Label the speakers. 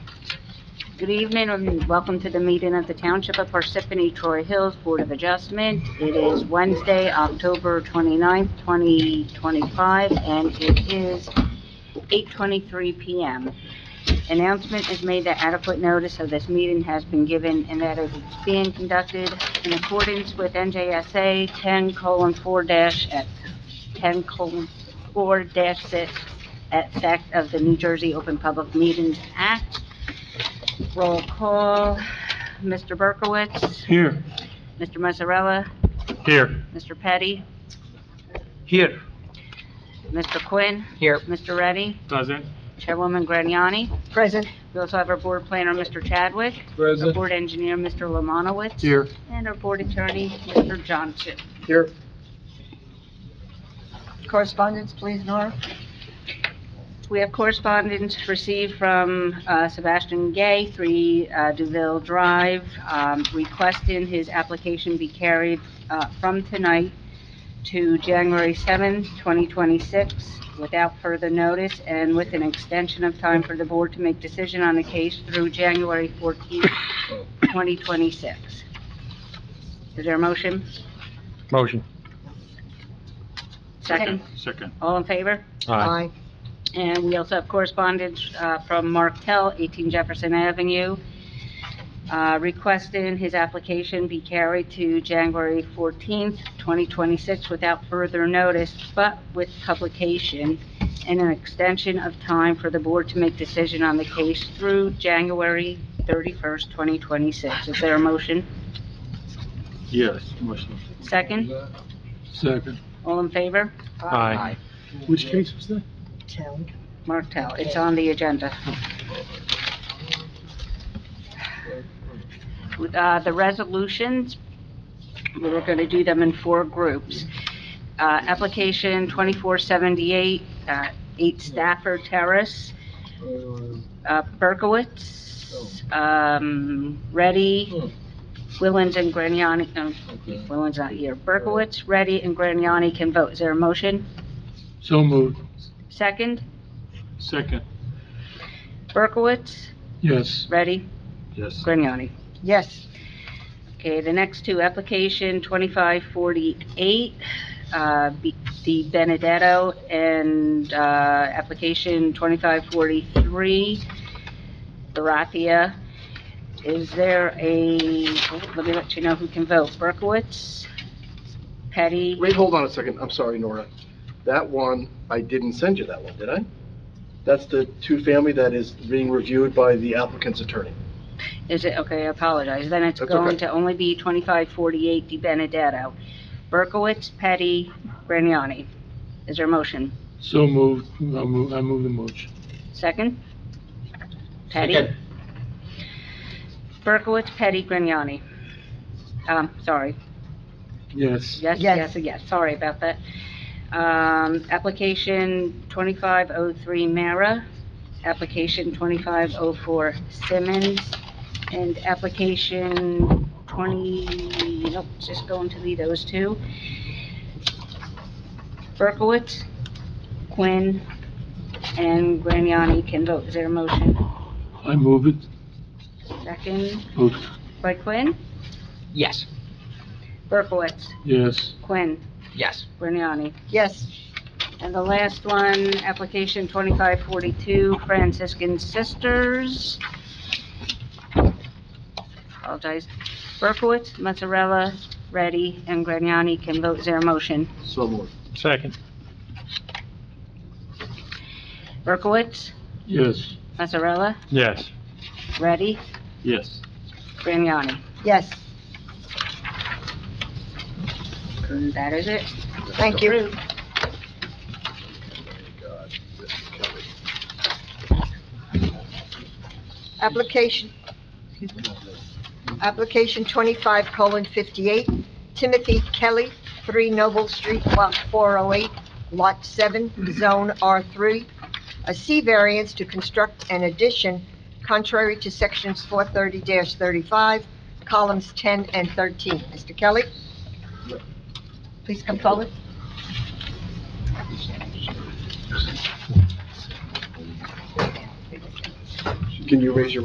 Speaker 1: Good evening and welcome to the meeting of the Township of Parsippany Troy Hills Board of Adjustment. It is Wednesday, October 29th, 2025, and it is 8:23 PM. Announcement is made that adequate notice of this meeting has been given and that it is being conducted in accordance with NJSA 10:4-X, 10:4-6, at sec of the New Jersey Open Public Meetings Act. Roll call, Mr. Berkowitz,
Speaker 2: Here.
Speaker 1: Mr. Mazzarella,
Speaker 2: Here.
Speaker 1: Mr. Petty,
Speaker 2: Here.
Speaker 1: Mr. Quinn,
Speaker 2: Here.
Speaker 1: Mr. Reddy,
Speaker 2: Present.
Speaker 1: Chairwoman Graniani.
Speaker 3: Present.
Speaker 1: We also have our board planner, Mr. Chadwick, our board engineer, Mr. Lemanowitz,
Speaker 2: Here.
Speaker 1: and our board attorney, Mr. Johnson.
Speaker 2: Here.
Speaker 3: Correspondence, please, Nora.
Speaker 1: We have correspondence received from uh, Sebastian Gay, 3 uh, DeVille Drive, um, requesting his application be carried uh, from tonight to January 7, 2026, without further notice and with an extension of time for the board to make decision on the case through January 14, 2026. Is there a motion?
Speaker 2: Motion.
Speaker 1: Second?
Speaker 2: Second.
Speaker 1: All in favor? And we also have correspondence uh, from Mark Tell, 18 Jefferson Avenue, uh, requesting his application be carried to January 14th, 2026, without further notice, but with publication and an extension of time for the board to make decision on the case through January 31st, 2026. Is there a motion?
Speaker 2: Yes. Motion.
Speaker 1: Second?
Speaker 2: Second.
Speaker 1: All in favor?
Speaker 2: Aye. Which case was that?
Speaker 3: Town.
Speaker 1: Mark Tell, it's on the agenda. Uh, the resolutions, we were gonna do them in four groups. Uh, application twenty-four seventy-eight, uh, eight Stafford Terrace, uh, Berkowitz, um, Ready, Willens and Graniani, um, Willens not here, Berkowitz, Ready, and Graniani can vote. Is there a motion?
Speaker 2: So moved.
Speaker 1: Second,
Speaker 2: Second.
Speaker 1: Berkowitz,
Speaker 2: Yes.
Speaker 1: Ready,
Speaker 2: Yes.
Speaker 1: Grignani.
Speaker 3: Yes.
Speaker 1: Okay, the next two, application 2548, uh, B- Di Benedetto, and uh, application 2543, Baratia. Is there a, oh, let me let you know who can vote. Berkowitz, Petty,
Speaker 4: Wait, hold on a second. I'm sorry, Nora. That one, I didn't send you that one, did I? That's the two-family that is being reviewed by the applicant's attorney.
Speaker 1: is it, okay, I apologize. Then it's
Speaker 4: That's
Speaker 1: going
Speaker 4: okay.
Speaker 1: to only be 2548, Di Benedetto. Berkowitz, Petty, Grignani. Is there a motion?
Speaker 2: So moved. I move, I move the motion.
Speaker 1: Second? Petty? Berkowitz, Petty, Grignani. Um, sorry,
Speaker 2: Yes.
Speaker 1: yes, yes,
Speaker 3: Yes.
Speaker 1: yes, sorry about that. Um, application twenty-five oh three Mara, application twenty-five oh four Simmons, and application twenty, nope, it's just going to be those two. Berkowitz, Quinn, and Grignani can vote. Is there a motion?
Speaker 2: I move it.
Speaker 1: Second
Speaker 2: Vote.
Speaker 1: by Quinn?
Speaker 5: Yes,
Speaker 1: Berkowitz,
Speaker 2: Yes.
Speaker 1: Quinn,
Speaker 5: yes,
Speaker 1: Grignani.
Speaker 3: Yes.
Speaker 1: And the last one, application 2542 Franciscan Sisters. Apologize. Berkowitz, Mazzarella, Ready, and Grignani can vote their motion.
Speaker 4: So moved.
Speaker 2: Second.
Speaker 1: Berkowitz,
Speaker 2: Yes.
Speaker 1: Mazzarella,
Speaker 2: Yes.
Speaker 1: Ready,
Speaker 2: Yes.
Speaker 1: Grignani.
Speaker 3: Yes.
Speaker 1: And That is it.
Speaker 3: Thank you. Application, application twenty-five colon fifty-eight, Timothy Kelly, three Noble Street, block four oh eight, lot seven, zone R three. A C variance to construct an addition contrary to sections four thirty thirty-five, columns ten and thirteen. Mr. Kelly? Please come forward.
Speaker 4: Can you raise your